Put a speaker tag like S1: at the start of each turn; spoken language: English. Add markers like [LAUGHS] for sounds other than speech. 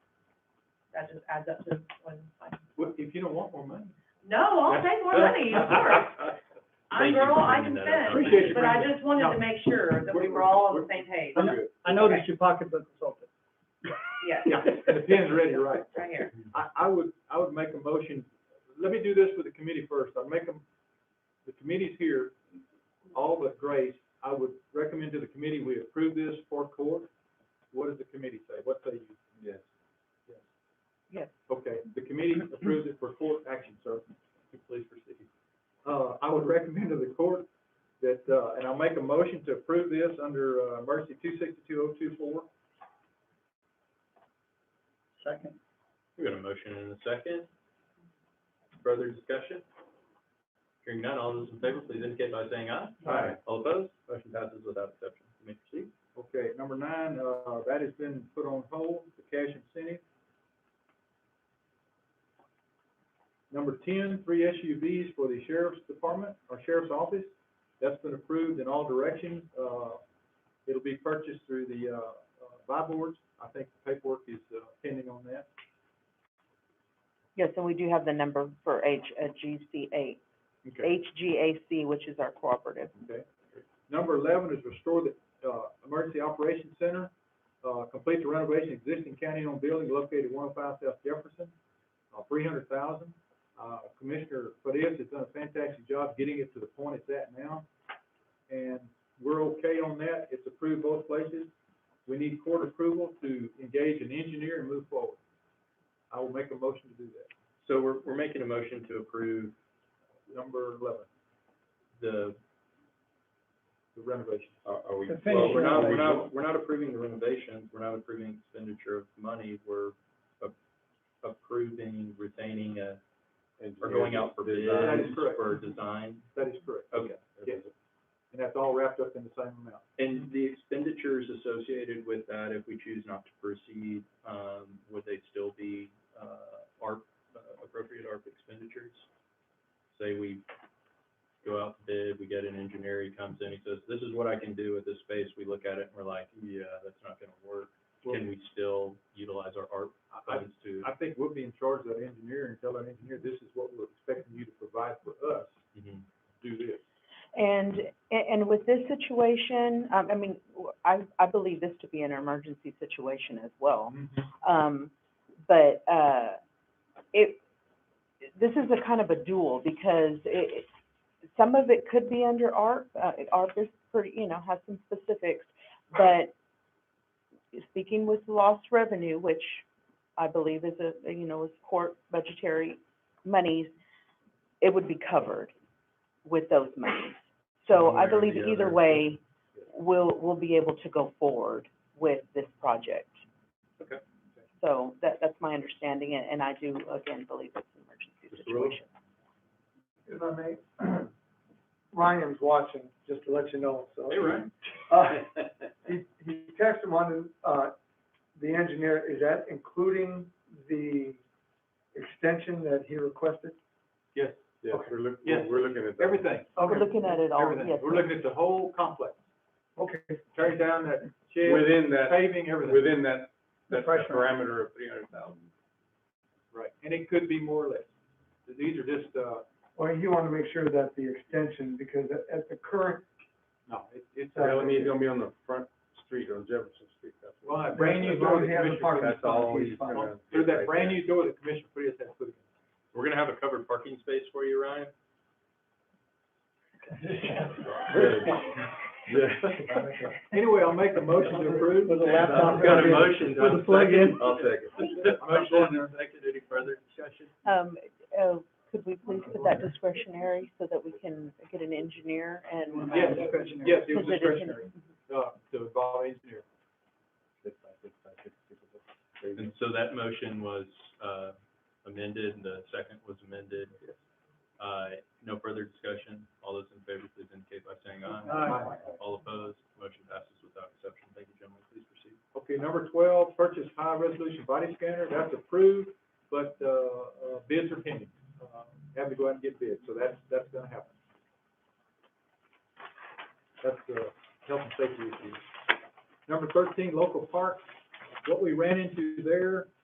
S1: that just adds up to one fund.
S2: Well, if you don't want more money.
S1: No, I'll take more money, of course.
S2: [LAUGHS]
S1: I'm
S3: Thank you
S1: girl,
S3: for
S1: I
S3: bringing
S1: can
S3: that up.
S2: Appreciate
S1: spend,
S2: you
S1: but I
S2: bringing
S1: just wanted to
S2: No.
S1: make sure that we were all on the same page.
S2: We're good.
S4: I noticed your pocketbook is open.
S1: Yes,
S2: Yeah, and the pen's ready, you're right.
S1: right here.
S2: I, I would, I would make a motion, let me do this with the committee first, I'd make them, the committee's here, all but Grace, I would recommend to the committee, we approve this for court. What does the committee say, what say you? Yes.
S4: Yes.
S2: Okay, the committee approves it for court action, sir, please proceed. Uh, I would recommend to the court that, uh, and I'll make a motion to approve this under, uh, emergency two sixty-two oh two four.
S4: Second.
S3: We got a motion and a second. Further discussion? Hearing none, all those in favor, please indicate by saying aye.
S2: Aye.
S3: All opposed? Motion passes without exception. You may proceed.
S2: Okay, number nine, uh, that has been put on hold, the cash incentive. Number ten, three SUVs for the sheriff's department, or sheriff's office, that's been approved in all directions, uh, it'll be purchased through the, uh, uh, buy boards, I think the paperwork is, uh, pending on that.
S5: Yes, and we do have the number for H, uh, GCA,
S2: Okay.
S5: HGAC, which is our cooperative.
S2: Okay. Number eleven is restore the, uh, emergency operations center, uh, complete the renovation of existing county-owned building located one oh five South Jefferson, uh, three hundred thousand. Uh, Commissioner Fadis has done a fantastic job getting it to the point it's at now, and we're okay on that, it's approved both places. We need court approval to engage an engineer and move forward. I will make a motion to do that,
S3: So we're, we're making a motion to approve
S2: number eleven,
S3: the,
S2: the renovation.
S3: are, are we?
S4: The
S3: Well, we're not, we're
S4: finishing
S3: not, we're not approving the renovations, we're not approving expenditure of money, we're a- approving retaining a, or going out for bids
S2: That is correct.
S3: for design.
S2: That is correct,
S3: Okay.
S2: yes, and that's all wrapped up in the same amount.
S3: And the expenditures associated with that, if we choose not to proceed, um, would they still be, uh, ARP, uh, appropriate ARP expenditures? Say we go out to bid, we get an engineer, he comes in, he says, this is what I can do with this space, we look at it and we're like, yeah, that's not gonna work. Can we still utilize our ARP
S2: I,
S3: funds to?
S2: I think we'll be in charge of that engineer and tell that engineer, this is what we're expecting you to provide for us,
S3: Mhm.
S2: do this.
S5: And, and with this situation, um, I mean, I, I believe this to be an emergency situation as well.
S2: Mm-hmm.
S5: Um, but, uh, it, this is a kind of a duel because it, it- some of it could be under ARP. Uh, it- ARP is pretty, you know, has some specifics. But speaking with lost revenue, which I believe is a, you know, is court budgetary monies, it would be covered with those monies. So
S3: One way
S5: I
S3: or
S5: believe
S3: the
S5: either
S3: other.
S5: way, we'll, we'll be able to go forward with this project.
S3: Okay.
S5: So that, that's my understanding, and, and I do, again, believe it's an emergency
S3: Mr. Rowe?
S5: situation.
S4: If I may, [CLEARS THROAT] Ryan's watching, just to let you know, so.
S3: Hey, Ryan.
S2: [LAUGHS]
S4: Uh, He, he texted him on, uh, the engineer, is that including the extension that he requested?
S6: Yes,
S4: Okay.
S6: we're looking,
S2: Yes.
S6: we're looking at that.
S2: Everything,
S5: We're looking at it all,
S2: everything.
S5: yes.
S2: We're looking at the whole complex,
S4: Okay,
S2: tearing down that shed,
S6: Within that,
S2: paving, everything.
S6: within that, that
S4: Fresh one.
S6: parameter of three hundred thousand.
S2: Right, and it could be more or less. These are just, uh,
S4: well, he wanted to make sure that the extension, because at, at the current,
S2: no, it- it's,
S4: That's
S6: Well,
S2: uh,
S6: and he's gonna be on the front street on Jefferson Street. That's-
S2: well, that brand new
S4: As
S2: door
S4: long
S2: the
S4: as he has a
S2: commissioner,
S4: parking
S6: That's all
S4: He's
S6: he's
S4: fine.
S6: gonna.
S2: through that brand
S6: [LAUGHS]
S2: new door the commissioner put his head put in.
S3: We're gonna have a covered parking space for you, Ryan.
S2: [LAUGHS] Anyway, I'll make a motion to approve.
S4: With a laptop.
S2: And, uh,
S3: Got a motion.
S4: Put the plug in.
S3: I'll [LAUGHS] second. Motion and a second, any further discussion?
S5: Um, uh, could we please put that discretionary so that we can get an engineer and? um,
S2: Yes, yes, it
S5: because it is
S2: was
S5: an-
S2: discretionary, uh, to involve engineer.
S3: And so that motion was, uh, amended, and the second was amended. Uh, no further discussion, all those in favor, please indicate by saying aye.
S2: Aye.
S3: All opposed, motion passes without exception, thank you, gentlemen, please proceed.
S2: Okay, number twelve, purchase high resolution body scanner, that's approved, but, uh, uh, bids are pending. Uh, Have to go out and get bids, so that's, that's gonna happen. That's, uh, health and safety issue. Number thirteen, local parks, what we ran into there